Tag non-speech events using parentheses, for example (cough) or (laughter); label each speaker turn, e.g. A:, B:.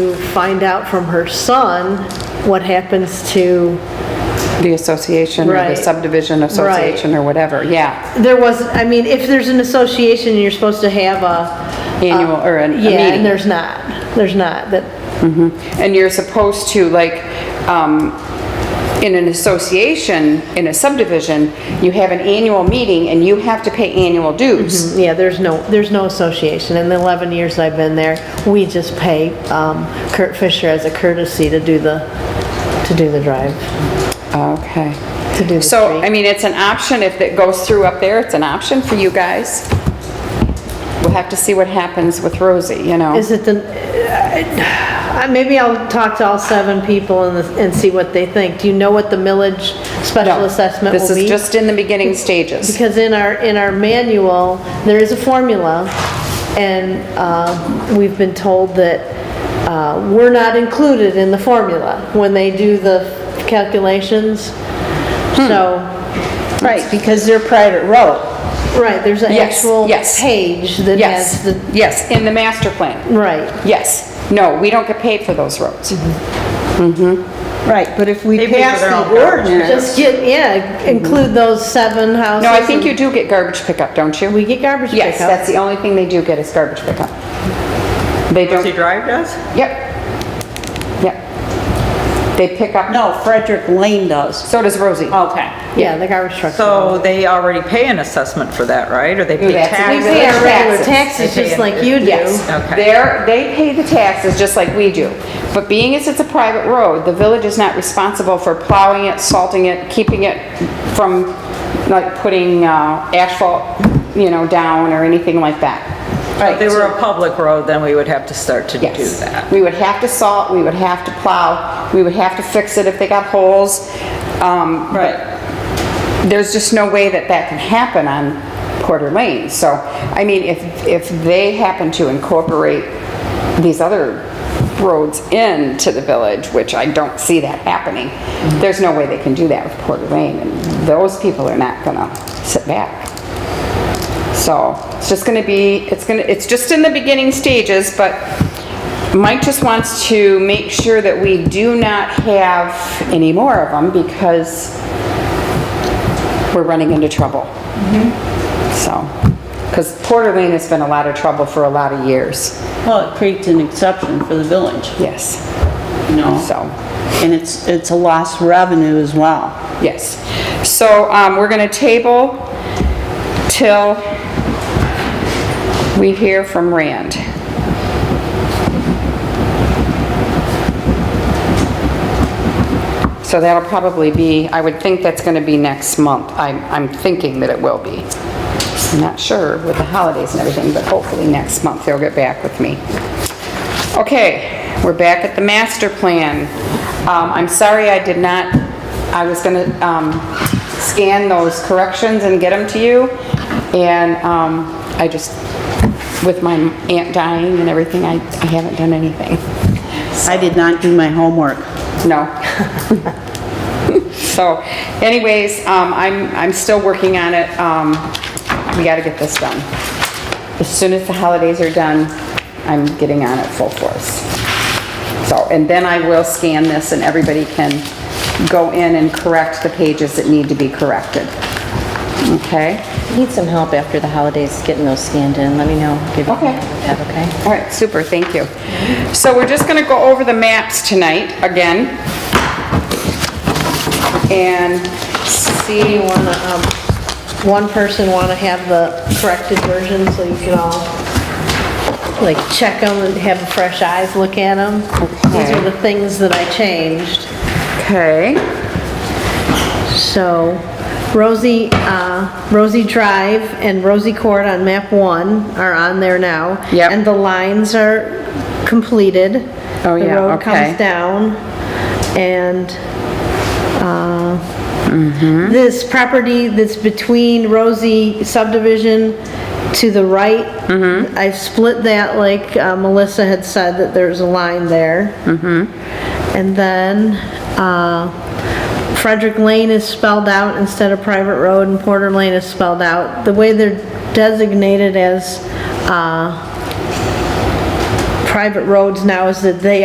A: to find out from her son what happens to,
B: the association or the
A: Right.
B: subdivision association or whatever, yeah.
A: there was, I mean, if there's an association, you're supposed to have a.
B: Annual, or a a
A: Uh, Yeah, and
B: meeting.
A: there's not, there's not, that,
B: And you're supposed to, like, um, in an association, in a subdivision, you have an annual meeting and you have to pay annual dues.
A: yeah, there's no, there's no association. In the 11 years I've been there, we just pay um, Kurt Fisher as a courtesy to do the, to do the drive,
B: Okay.
A: to do Mm-hmm. the
B: So, I
A: street.
B: mean, it's an option, if it goes through up there, it's an option for you guys. We'll have to see what happens with Rosie, you know?
A: Is it the, uh, I- maybe I'll talk to all seven people and, and see what they think. Do you know what the millage special
B: No,
A: assessment will be?
B: This is just in the beginning
A: (laughs)
B: stages.
A: Because in our, in our manual, there is a formula, and uh, we've been told that uh, we're not included in the formula when they do the calculations.
B: Hmm.
A: So,
C: Right, because they're private road.
A: right, there's an
B: Yes,
A: actual
B: yes.
A: page that has
B: Yes,
A: the,
B: yes, in the master plan.
A: right.
B: Yes. No, we don't get paid for those roads. Mm-hmm.
C: Right, but if we
D: They pay
C: pass
D: for their own
C: the
D: garbage.
C: ordinance,
A: Just get, yeah, include those seven houses.
B: Mm-hmm. No, I think you do get garbage pickup, don't you?
A: We get garbage pickup.
B: Yes, that's the only thing they do get is garbage pickup. They
D: Does
B: don't,
D: he drive does?
B: yep, yep. They pick up,
C: no, Frederick Lane does.
B: so does Rosie.
C: Okay.
A: Yeah, the garbage truck.
D: So they already pay an assessment for that, right? Or they pay
B: That's-
A: We
B: we
D: taxes?
A: pay our
B: Taxes.
A: regular
D: They
A: taxes
D: pay
A: just
D: in-
A: like you do.
B: Yes,
D: Okay.
B: they're, they pay the taxes just like we do. But being as it's a private road, the village is not responsible for plowing it, salting it, keeping it from, like, putting uh, asphalt, you know, down or anything like that.
D: If they were a public road, then we would have to start to do
B: Yes.
D: that.
B: We would have to salt, we would have to plow, we would have to fix it if they got holes. Um,
D: Right.
B: There's just no way that that can happen on Porter Lane. So, I mean, if, if they happen to incorporate these other roads into the village, which I don't see that happening, there's no way they can do that with Porter Lane. And those people are not gonna sit back. So it's just gonna be, it's gonna, it's just in the beginning stages, but Mike just wants to make sure that we do not have any more of them because we're running into trouble. So, because Porter Lane has been a lot of trouble for a lot of years.
C: Well, it creates an exception for the village,
B: Yes,
C: you know?
B: so.
C: And it's, it's a lost revenue as well.
B: Yes. So um, we're going to table till we hear from Rand. So that'll probably be, I would think that's going to be next month. I'm I'm thinking that it will be. I'm not sure with the holidays and everything, but hopefully next month they'll get back with me. Okay, we're back at the master plan. Um, I'm sorry I did not, I was gonna, um, scan those corrections and get them to you. And, um, I just, with my aunt dying and everything, I, I haven't done anything.
C: I did not do my homework.
B: No. (laughs) So anyways, um, I'm, I'm still working on it. Um, we gotta get this done. As soon as the holidays are done, I'm getting on it full force. So, and then I will scan this and everybody can go in and correct the pages that need to be corrected. Okay?
E: Need some help after the holidays getting those scanned in, let me know. Give you-
B: Okay.
E: That okay?
B: All right, super, thank you. So we're just gonna go over the maps tonight again. And see
A: You wanna, um, one person wanna have the corrected version so you can all, like, check them and have fresh eyes look at them. These are the things that I changed.
B: Okay,
A: So Rosie, uh, Rosie Drive and Rosie Court on map one are on there now.
B: Yep.
A: And the lines are completed.
B: Oh, yeah,
A: The road
B: okay.
A: comes down and, uh,
B: Mm-hmm.
A: this property that's between Rosie subdivision to the right,
B: Mm-hmm.
A: I've split that like uh, Melissa had said, that there's a line there.
B: Mm-hmm.
A: And then uh, Frederick Lane is spelled out instead of private road, and Porter Lane is spelled out. The way they're designated as uh, private roads now is that they